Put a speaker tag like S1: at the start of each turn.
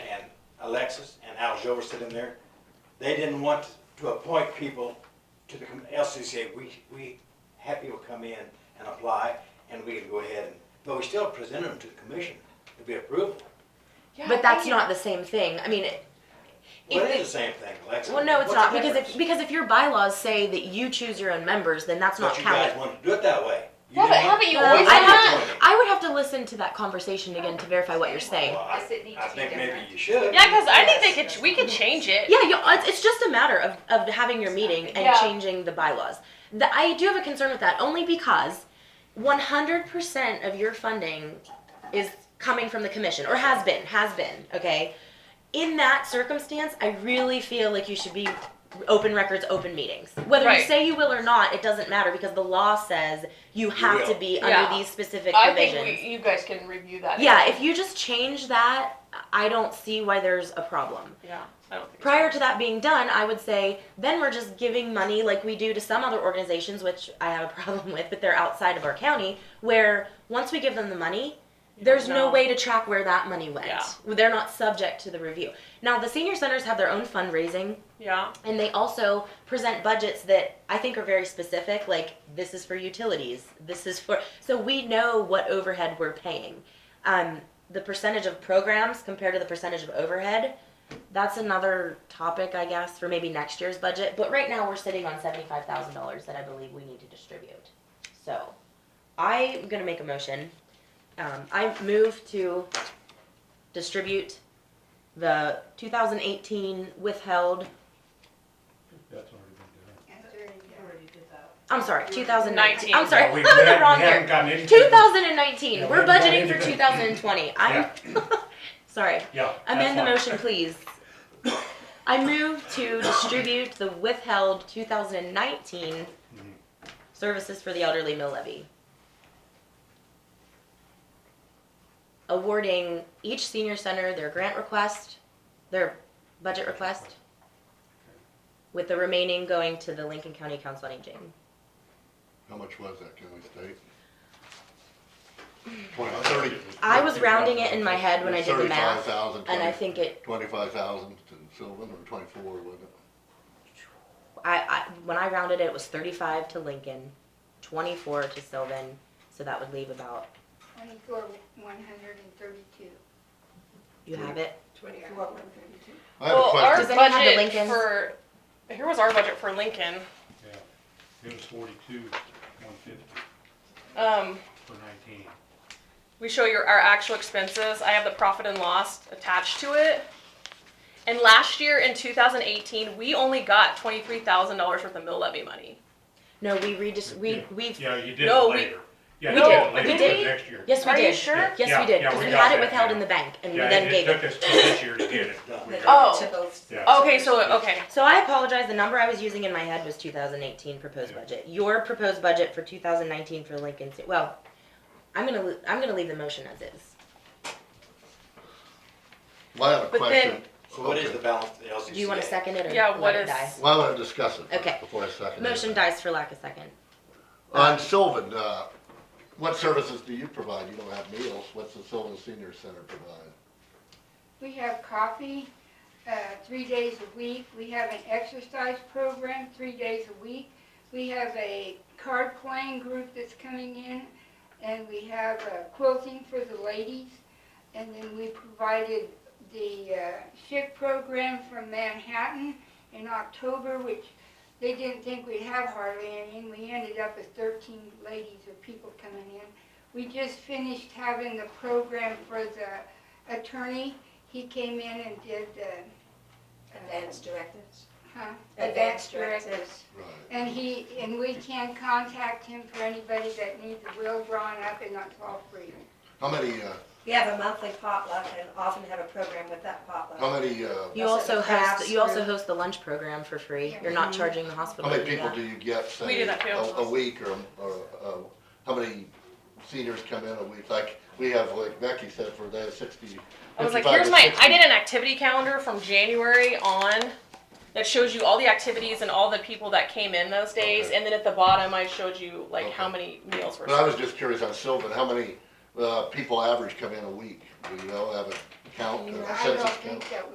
S1: Alexis and Al Jover sitting there, they didn't want to appoint people to the com- LCCA. We, we had people come in and apply, and we could go ahead and, but we still presented them to the commission to be approved.
S2: Yeah, I
S3: But that's
S2: think it-
S3: not the same thing. I mean, it-
S1: Well,
S3: If
S1: it
S3: they-
S1: is the same thing, Alexis.
S3: well, no, it's
S1: What's
S3: not
S1: the
S3: because if
S1: difference?
S3: because if your bylaws say that you choose your own members, then that's not
S1: But you guys
S3: counted.
S1: wanted to do it that way. You
S2: Yeah, but
S1: didn't want-
S2: haven't you
S1: Well,
S2: always
S1: I
S2: done
S1: didn't
S3: that?
S1: want it.
S3: I would have to listen to that conversation again to verify what you're saying.
S1: Well, I-
S4: Does it need
S1: I
S4: to be
S1: think maybe
S4: different?
S1: you should.
S5: Yeah, because I think they could. We could change it.
S3: Yeah, you, it's, it's just a matter of, of having your meeting and
S2: Yeah.
S3: changing the bylaws. The, I do have a concern with that only because 100% of your funding is coming from the commission or has been, has been, okay? In that circumstance, I really feel like you should be open records, open meetings. Whether you
S5: Right.
S3: say you will or not, it doesn't matter because the law says you have to
S1: will.
S3: be
S5: Yeah.
S3: under these specific
S5: I
S3: provisions.
S5: think we, you guys can review that.
S3: yeah, if you just change that, I don't see why there's a problem
S5: yeah, I don't think
S3: prior to that being done, I would say then we're just giving money like we do to some other organizations, which I have a problem with, but they're outside of our county, where once we give them the money, there's no
S5: know.
S3: way to track where that money went.
S5: Yeah.
S3: They're not subject to the review. Now, the senior centers have their own fundraising
S5: Yeah,
S3: and they also present budgets that I think are very specific, like this is for utilities, this is for, so we know what overhead we're paying. Um, the percentage of programs compared to the percentage of overhead, that's another topic, I guess, for maybe next year's budget. But right now, we're sitting on seventy-five thousand dollars that I believe we need to distribute. So, I'm gonna make a motion. Um, I move to distribute the two thousand eighteen withheld
S6: That's already been done.
S3: I'm sorry, 2019.
S5: 19.
S3: I'm sorry,
S6: No, we-
S3: I'm in
S6: we
S3: the wrong
S6: haven't
S3: year.
S6: gotten anything.
S3: 2019.
S6: Yeah, we
S3: We're
S6: haven't done
S3: budgeting for 2020.
S6: anything.
S3: I'm sorry.
S6: Yeah.
S3: Amend the
S6: that's
S3: motion, please. I move to distribute the withheld 2019
S6: Mhm.
S3: services for the elderly mill levy. Awarding each senior center their grant request, their budget request, with the remaining going to the Lincoln County Council on Aging.
S7: How much was that, can we state?
S6: fine.
S7: Twenty, thirty.
S3: I was rounding it in my head when I did the
S7: Thirty-five
S3: math,
S7: thousand,
S3: and I
S7: twenty,
S3: think it.
S7: twenty-five thousand to Sylvan, or twenty-four, wasn't it?
S3: I, I when I rounded it, it was thirty-five to Lincoln, twenty-four to Sylvan, so that would leave about.
S8: Twenty-four, one hundred and thirty-two.
S3: You have it.
S8: Twenty-four, one thirty-two.
S7: I have a
S5: well, our
S3: Does
S7: question,
S3: anyone have the
S5: budget
S3: Lincolns?
S5: for here was our budget for Lincoln.
S6: Yeah. It was forty-two, one fifty
S5: Um,
S6: for nineteen.
S5: we show your our actual expenses. I have the profit and loss attached to it. And last year in 2018, we only got twenty-three thousand dollars worth of mill levy money.
S3: No, we redis, we,
S6: Yeah.
S3: we've,
S6: Yeah, you did it
S5: No, we-
S6: later. Yeah,
S5: we
S6: you
S5: did.
S6: it later,
S3: We
S6: you
S3: did.
S6: it next year.
S3: yes, we
S5: Are you
S3: did.
S5: sure?
S3: Yes,
S6: Yeah,
S3: we did,
S6: yeah,
S3: because
S6: we
S3: we
S6: got
S3: had it
S6: that,
S3: withheld
S6: yeah.
S3: in the bank, and we
S6: Yeah,
S3: then
S6: it
S3: gave
S6: took
S3: it.
S6: us till this year to get it.
S1: Done.
S6: We got
S5: Oh.
S6: it. Yeah.
S5: Okay, so okay,
S3: So I apologize, the number I was using in my head was two thousand eighteen proposed
S6: Yeah.
S3: budget. Your proposed budget for two thousand nineteen for Lincoln, Ci- well, I'm gonna, lo- I'm gonna leave the motion as is.
S7: well, I have a
S5: But
S7: question.
S1: So what is the
S7: Okay.
S1: balance of the LCCA?
S3: Do you wanna second it or
S5: Yeah, what
S3: let it
S5: is-
S3: die?
S7: Well, I want to discuss it
S3: Okay.
S7: first before I second it.
S3: Motion dies for lack of second.
S7: On Sylvan, uh, what services do you provide? You don't have meals, what's the Sylvan Senior Center provide?
S8: We have coffee, uh, three days a week. We have an exercise program, three days a week. We have a card playing group that's coming in, and we have uh, quilting for the ladies. And then we provided the uh, SHIC program from Manhattan in October, which they didn't think we'd have hardly any, and we ended up with thirteen ladies or people coming in. We just finished having the program for the attorney. He came in and did the.
S4: Advanced directives?
S8: Huh?
S4: Advanced directives.
S7: Right.
S8: And he, and we can contact him for anybody that needs a will drawn up and that's all free.
S7: How many, uh,
S9: We have a monthly potluck and often have a program with that potluck.
S7: how many, uh,
S3: You
S9: That's
S3: also
S9: it, the
S3: host,
S9: crafts
S3: you also
S9: group.
S3: host the lunch program for free. You're not charging the hospital.
S7: how many
S3: to do
S7: people
S3: that.
S7: do you get,
S5: We
S7: say,
S5: do that
S7: a
S5: for
S7: a
S5: ourselves.
S7: week, or, or, uh, how many seniors come in a week? Like, we have, like Becky said, for that sixty,
S5: I was like,
S7: 55
S5: here's
S7: to
S5: my, I
S7: 60.
S5: did an activity calendar from January on that shows you all the activities and all the people that came in those days.
S7: Okay.
S5: And then at the bottom, I showed you like how
S7: Okay.
S5: many meals were
S7: But I was
S5: served.
S7: just curious on Sylvan, how many, uh, people average come in a week? Do you all have a count, a
S8: I don't
S7: census count?
S8: think that